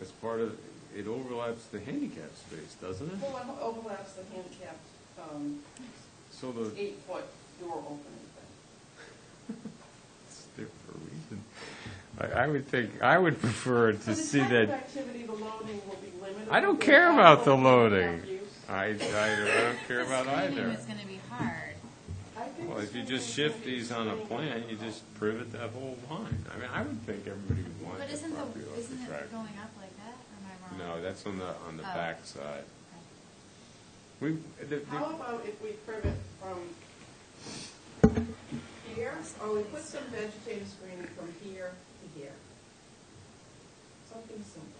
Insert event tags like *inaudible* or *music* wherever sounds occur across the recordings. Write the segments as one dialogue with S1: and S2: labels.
S1: as part of, it overlaps the handicap space, doesn't it?
S2: Well, it overlaps the handicapped, um,
S1: So the,
S2: eight-foot door opening thing.
S1: it's there for a reason. I, I would think, I would prefer
S2: So
S1: to
S2: the
S1: see
S2: type of
S1: that,
S2: activity, the loading will be limited.
S1: I don't
S2: to
S1: care about the
S2: outdoor
S1: loading.
S2: handicap use.
S1: I, I, I don't care about
S3: Screening
S1: either.
S3: is gonna be hard.
S2: I think
S1: Well,
S2: the
S1: if you
S2: screening
S1: just
S2: is
S1: shift
S2: gonna be
S1: these on a
S2: screening
S1: plan, you
S2: difficult.
S1: just privet that whole line. I mean, I would think everybody would want
S3: But
S1: the
S3: isn't
S1: property
S3: the,
S1: off the
S3: isn't
S1: track.
S3: it going up like that, or am I wrong?
S1: No, that's on the, on the
S3: Oh.
S1: back side.
S3: Okay.
S1: We, the, the-
S2: How about if we privet from here, or we put some vegetative screening from here to here? Something simple.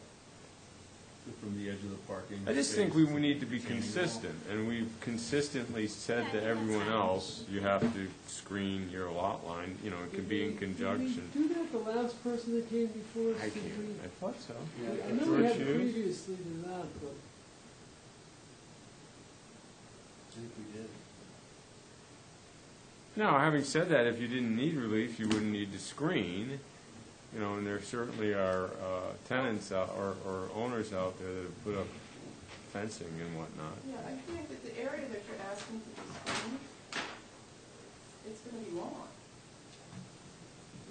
S4: From the edge of the parking.
S1: I just think we
S4: space.
S1: need to be consistent, and we've consistently said to
S3: Yeah, I think that's
S1: everyone
S3: fine.
S1: else, you have to screen your lot line, you know, it could be in conjunction.
S5: Did we do that the last person that came before? us?
S1: I
S5: Did
S1: can't,
S5: we-
S1: I thought so.
S5: I know we had
S1: George Hughes?
S5: previously done that, but
S4: I think we did.
S1: No, having said that, if you didn't need relief, you wouldn't need to screen, you know, and there certainly are uh, tenants out- or or owners out there that have put up fencing and whatnot.
S2: Yeah, I think that the area that you're asking to be screened, it's gonna be long.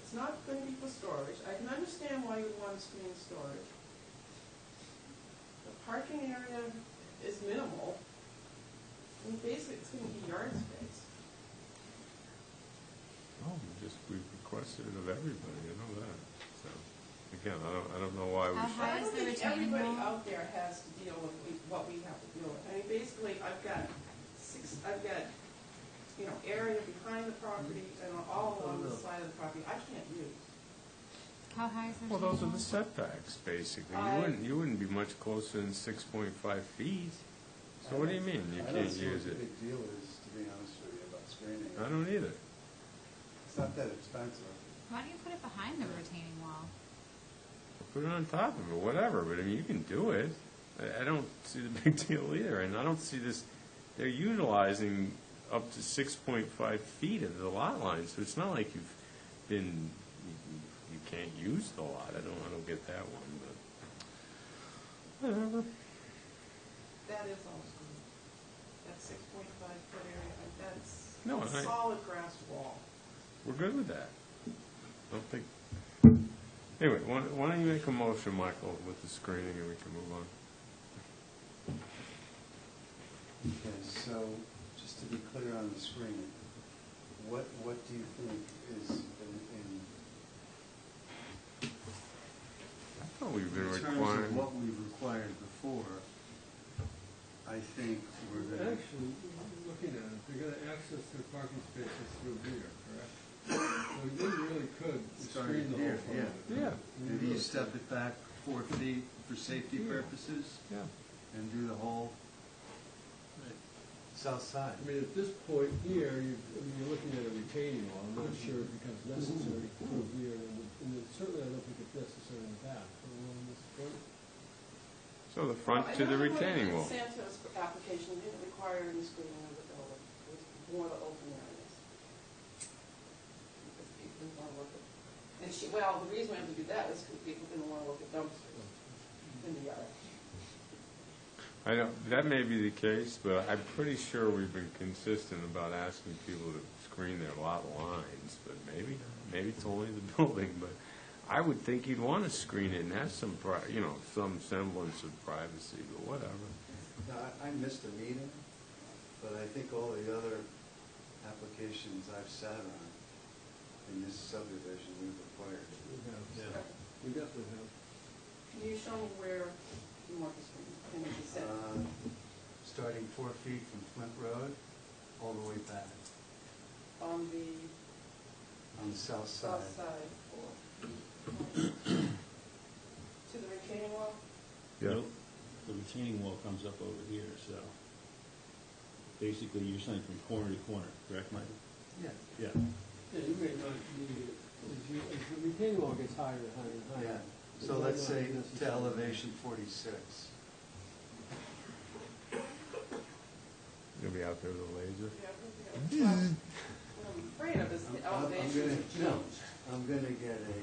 S2: It's not gonna be for storage. I can understand why you'd want to screen storage. The parking area is minimal. I mean, basically, it's gonna be yard space.
S1: Oh, we just, we've requested it of everybody, I know that, so, again, I don't, I don't know why we
S3: How
S1: should.
S3: high
S2: I
S3: is
S2: don't
S3: the
S2: think
S3: retaining
S2: everybody
S3: wall?
S2: out there has to deal with we- what we have to deal with. I mean, basically, I've got six, I've got, you know, area behind the property and all along the side of the property I can't use.
S3: How high is the retaining
S1: Well,
S3: wall?
S1: those are the setbacks, basically. You
S2: I-
S1: wouldn't, you wouldn't be much closer than six point five feet. So what do you mean, you
S6: I
S1: can't
S6: don't see what
S1: use it?
S6: the big deal is, to be honest with you, about screening.
S1: I don't either.
S6: It's not that expensive.
S3: Why do you put it behind the retaining wall?
S1: Put it on top of it, whatever, but I mean, you can do it. I, I don't see the *laughs* big deal either, and I don't see this, they're utilizing up to six point five feet of the lot line, so it's not like you've been, you- you can't use the lot. I don't, I don't get that one, but whatever.
S2: That is all screened. That six point five foot area, and that's
S1: No,
S2: a
S1: I-
S2: solid grass wall.
S1: We're good with that. I don't think, anyway, why why don't you make a motion, Michael, with the screening, and we can move on?
S6: Okay, so, just to be clear on the screening, what, what do you think is in, in
S1: I thought we've been
S6: in terms of
S1: requiring,
S6: what we've required before? I think we're gonna,
S4: Actually, looking at it, they're gonna access their parking spaces through here, correct? So you really could
S6: Starting
S4: screen the
S6: here,
S4: whole front. of it.
S1: yeah,
S4: You
S6: maybe you
S4: really
S6: step
S4: could.
S6: it back four feet for safety purposes
S1: yeah.
S6: and do the whole south side.
S4: I mean, at this point here, you, I mean, you're looking at a retaining wall,
S5: Mm-hmm.
S4: I'm not sure it becomes necessary through here, and it- and it certainly I don't think it's necessary in the back, but along this front.
S1: So the front to the retaining wall.
S2: I know the one in Santos application didn't require any screening of the building, it was more the open areas. Because people didn't want to look at, and she, well, the reason we have to do that is because people didn't want to look at dumpsters in the yard.
S1: I know, that may be the case, but I'm pretty sure we've been consistent about asking people to screen their lot lines, but maybe, maybe it's only the *laughs* building, but I would think you'd want to screen it and have some, pri- you know, some semblance of privacy, but whatever.
S6: Now, I, I missed a meeting, but I think all the other applications I've sat on in this subdivision we've acquired.
S4: We have- We definitely have.
S2: Can you show me where you want the screening, can it be set?
S6: Uh, Starting four feet from Flint Road, all the way back
S2: on the
S6: on the south side.
S2: south side or to the retaining wall?
S1: Yeah.
S7: Nope. The retaining wall comes up over here, so basically you're saying from corner to corner, correct, Michael?
S4: Yeah.
S7: Yeah.
S4: Yeah, you may not need it, as you, as the retaining wall gets higher and higher and
S6: Oh, Yeah,
S4: higher. it
S6: so
S4: might
S6: let's
S4: not
S6: say to
S4: necessarily-
S6: elevation forty-six.
S1: Gonna be out there with a laser.
S2: Yeah, I think, yeah. Well, What I'm afraid of is the
S6: I'm- I'm- I'm
S2: elevation
S6: gonna-
S2: change.
S6: I'm gonna get a